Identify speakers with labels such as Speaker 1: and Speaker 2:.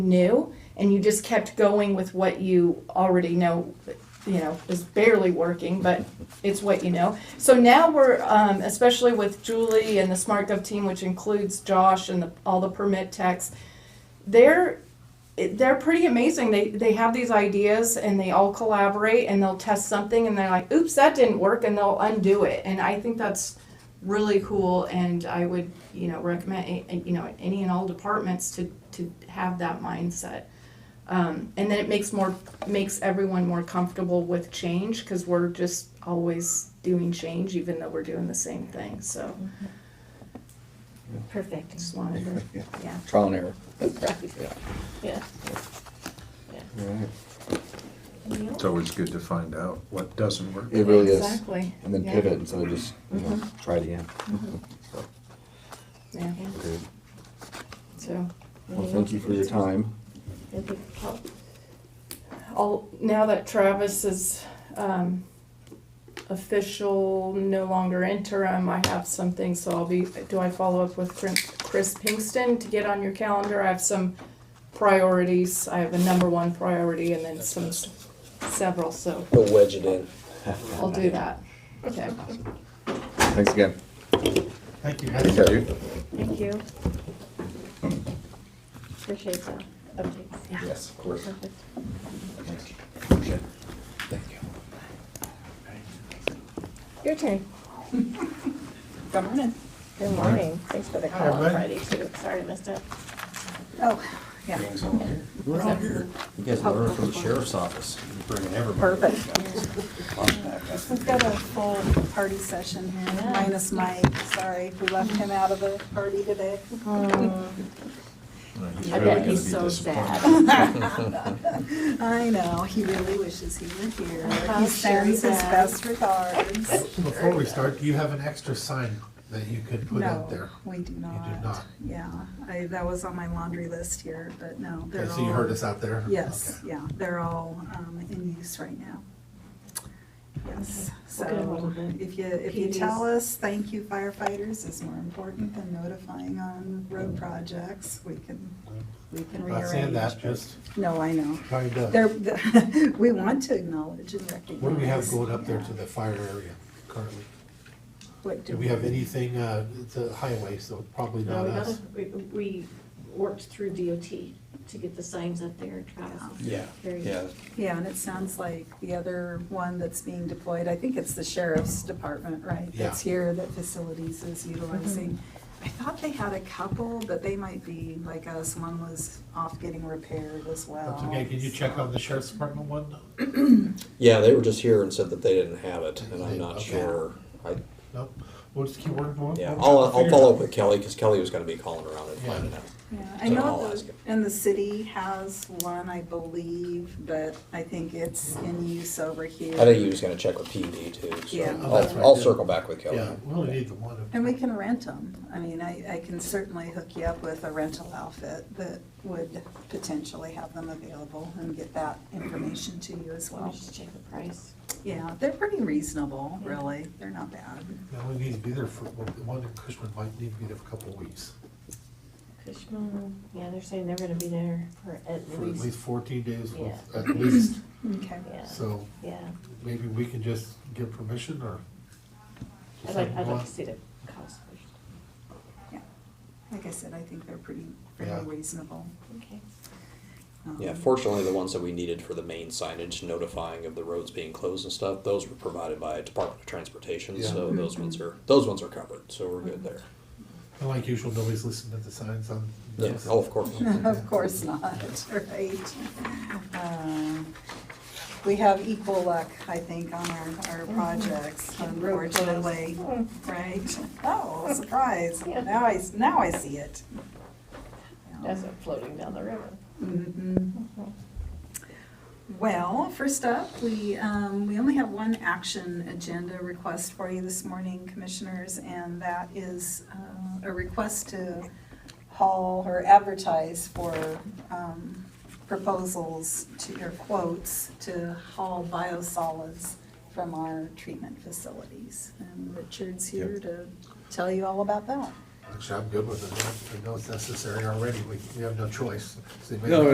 Speaker 1: new and you just kept going with what you already know you know is barely working but it's what you know so now we're um, especially with julie and the smart gov team which includes josh and the, all the permit techs they're it- they're pretty amazing they they have these ideas and they all collaborate and they'll test something and they're like oops that didn't work and they'll undo it and i think that's really cool and I would, you know, recommend, a- you know, any and all departments to, to have that mindset. Um, and then it makes more, makes everyone more comfortable with change because we're just always doing change even though we're doing the same thing, so
Speaker 2: Perfect.
Speaker 1: just wanted to, yeah.
Speaker 3: Trial and error.
Speaker 2: Yeah.
Speaker 4: It's always good to find out what doesn't work.
Speaker 3: It really is.
Speaker 1: Exactly.
Speaker 3: And then
Speaker 1: Yeah.
Speaker 3: pivot instead of just, you know, try it again. So,
Speaker 1: Yeah,
Speaker 3: good.
Speaker 1: so.
Speaker 3: Well, thank you for your time.
Speaker 2: That'd be help-
Speaker 1: I'll, now that Travis is um, official, no longer interim, I have something, so I'll be, do I follow up with Chris Chris Pinkston to get on your calendar? I have some priorities, I have a number one priority and then some, several, so
Speaker 5: We'll wedge it in.
Speaker 1: I'll do that. Okay.
Speaker 3: Thanks again.
Speaker 6: Thank you.
Speaker 3: Take care.
Speaker 2: Thank you. Appreciate the updates.
Speaker 3: Yes, of course.
Speaker 2: Perfect.
Speaker 3: Thank you.
Speaker 2: Your turn.
Speaker 7: Good morning.
Speaker 2: Good morning. Thanks for the
Speaker 6: Hi,
Speaker 2: call on Friday
Speaker 6: everybody.
Speaker 2: too. Sorry I missed it.
Speaker 7: Oh, yeah.
Speaker 5: We're all here. You guys learn from the sheriff's office. Bringing everybody.
Speaker 7: Perfect. We've got a full party session here, minus Mike. Sorry, we left him out of the party today.
Speaker 4: Uh, He's
Speaker 2: I
Speaker 4: really
Speaker 2: bet
Speaker 4: gonna be
Speaker 2: he's so sad.
Speaker 4: disappointed.
Speaker 7: I know, he really wishes he were here.
Speaker 2: How
Speaker 7: He sends his
Speaker 2: sad.
Speaker 7: best regards.
Speaker 6: So Before we start, do you have an extra sign that you could put
Speaker 7: No,
Speaker 6: out there?
Speaker 7: we do not.
Speaker 6: not.
Speaker 7: Yeah, I, that was on my laundry list here, but no, they're
Speaker 6: Okay,
Speaker 7: all.
Speaker 6: so you heard us out there?
Speaker 7: Yes,
Speaker 6: Okay.
Speaker 7: yeah, they're all um, in use right now. Yes,
Speaker 2: We'll get a hold
Speaker 7: so
Speaker 2: of it.
Speaker 7: if you, if you
Speaker 2: PDs.
Speaker 7: tell us, thank you firefighters is more important than notifying on road projects, we can, we can
Speaker 6: Not saying that, just
Speaker 7: rearrange. No, I know.
Speaker 6: trying
Speaker 7: They're,
Speaker 6: to,
Speaker 7: we want to acknowledge and recognize.
Speaker 6: what do we have going up there
Speaker 7: Yeah.
Speaker 6: to the fire area currently?
Speaker 7: What
Speaker 6: Do we have anything, uh, it's a highway, so probably
Speaker 2: No,
Speaker 6: not
Speaker 2: we
Speaker 6: us.
Speaker 2: gotta- we, we worked through DOT to get the signs up there. Travis is
Speaker 6: Yeah.
Speaker 2: very-
Speaker 3: Yeah,
Speaker 7: Yeah, and it sounds like the other one that's being deployed, I think it's the sheriff's department, right?
Speaker 6: Yeah.
Speaker 7: That's here that facilities is utilizing. I thought they had a couple, but they might be like us, one was off getting repaired as well.
Speaker 6: That's okay, can you check on the sheriff's department one?
Speaker 5: Yeah, they were just here and said that they didn't have it, and I'm not
Speaker 6: Okay.
Speaker 5: sure. I,
Speaker 6: No, we'll just keep working on it.
Speaker 5: yeah, I'll, I'll follow up with Kelly, because Kelly was gonna be calling around and
Speaker 6: Yeah.
Speaker 5: finding out.
Speaker 7: Yeah, I
Speaker 5: So I'll
Speaker 7: know,
Speaker 5: ask
Speaker 7: the-
Speaker 5: him.
Speaker 7: and the city has one, I believe, but I think it's in use over here.
Speaker 5: I think he was gonna check with PD too, so
Speaker 7: Yeah.
Speaker 6: Oh, that's
Speaker 5: I'll,
Speaker 6: right,
Speaker 5: I'll
Speaker 6: yeah.
Speaker 5: circle back with Kelly.
Speaker 6: Yeah, we only need the one.
Speaker 7: And we can rent them. I mean, I, I can certainly hook you up with a rental outfit that would potentially have them available and get that information to you as
Speaker 2: Let me
Speaker 7: well.
Speaker 2: just check the price.
Speaker 7: Yeah, they're pretty reasonable, really. They're not bad.
Speaker 6: Yeah, we need to be there for, the one in Cushman might need to be there for a couple of weeks,
Speaker 2: Cushman, yeah, they're saying they're gonna be there for at
Speaker 6: for at least
Speaker 2: least,
Speaker 6: fourteen days,
Speaker 2: Yeah.
Speaker 6: at least.
Speaker 7: Okay.
Speaker 2: yeah,
Speaker 6: So
Speaker 2: yeah.
Speaker 6: maybe we can just give permission or?
Speaker 2: I'd like, I'd like to see the cost first.
Speaker 7: Like I said, I think they're pretty, pretty
Speaker 6: Yeah.
Speaker 7: reasonable.
Speaker 2: Okay.
Speaker 7: Um,
Speaker 5: Yeah, fortunately, the ones that we needed for the main signage notifying of the roads being closed and stuff, those were provided by Department of Transportation,
Speaker 6: Yeah.
Speaker 5: so those ones are, those ones are covered, so we're good there.
Speaker 6: And like usual, nobody's listening to the signs on.
Speaker 5: Yeah,
Speaker 6: those.
Speaker 5: oh, of course.
Speaker 7: Of course not, right? Um, We have equal luck, I think, on our, our projects,
Speaker 2: Mm-hmm. Road closed. Mm-hmm.
Speaker 7: unfortunately, right? Oh, surprise,
Speaker 2: Yeah.
Speaker 7: now I, s- now I see it.
Speaker 2: That's it floating down the river.
Speaker 7: Mhm. Well, first up, we, um, we only have one action agenda request for you this morning, commissioners, and that is, uh, a request to haul or advertise for, um, proposals to, or quotes to haul biosolids from our treatment facilities. And Richard's here to tell you all about that.
Speaker 6: Actually, I'm good with it. I know it's necessary already. We, we have no choice. So you may-
Speaker 3: No,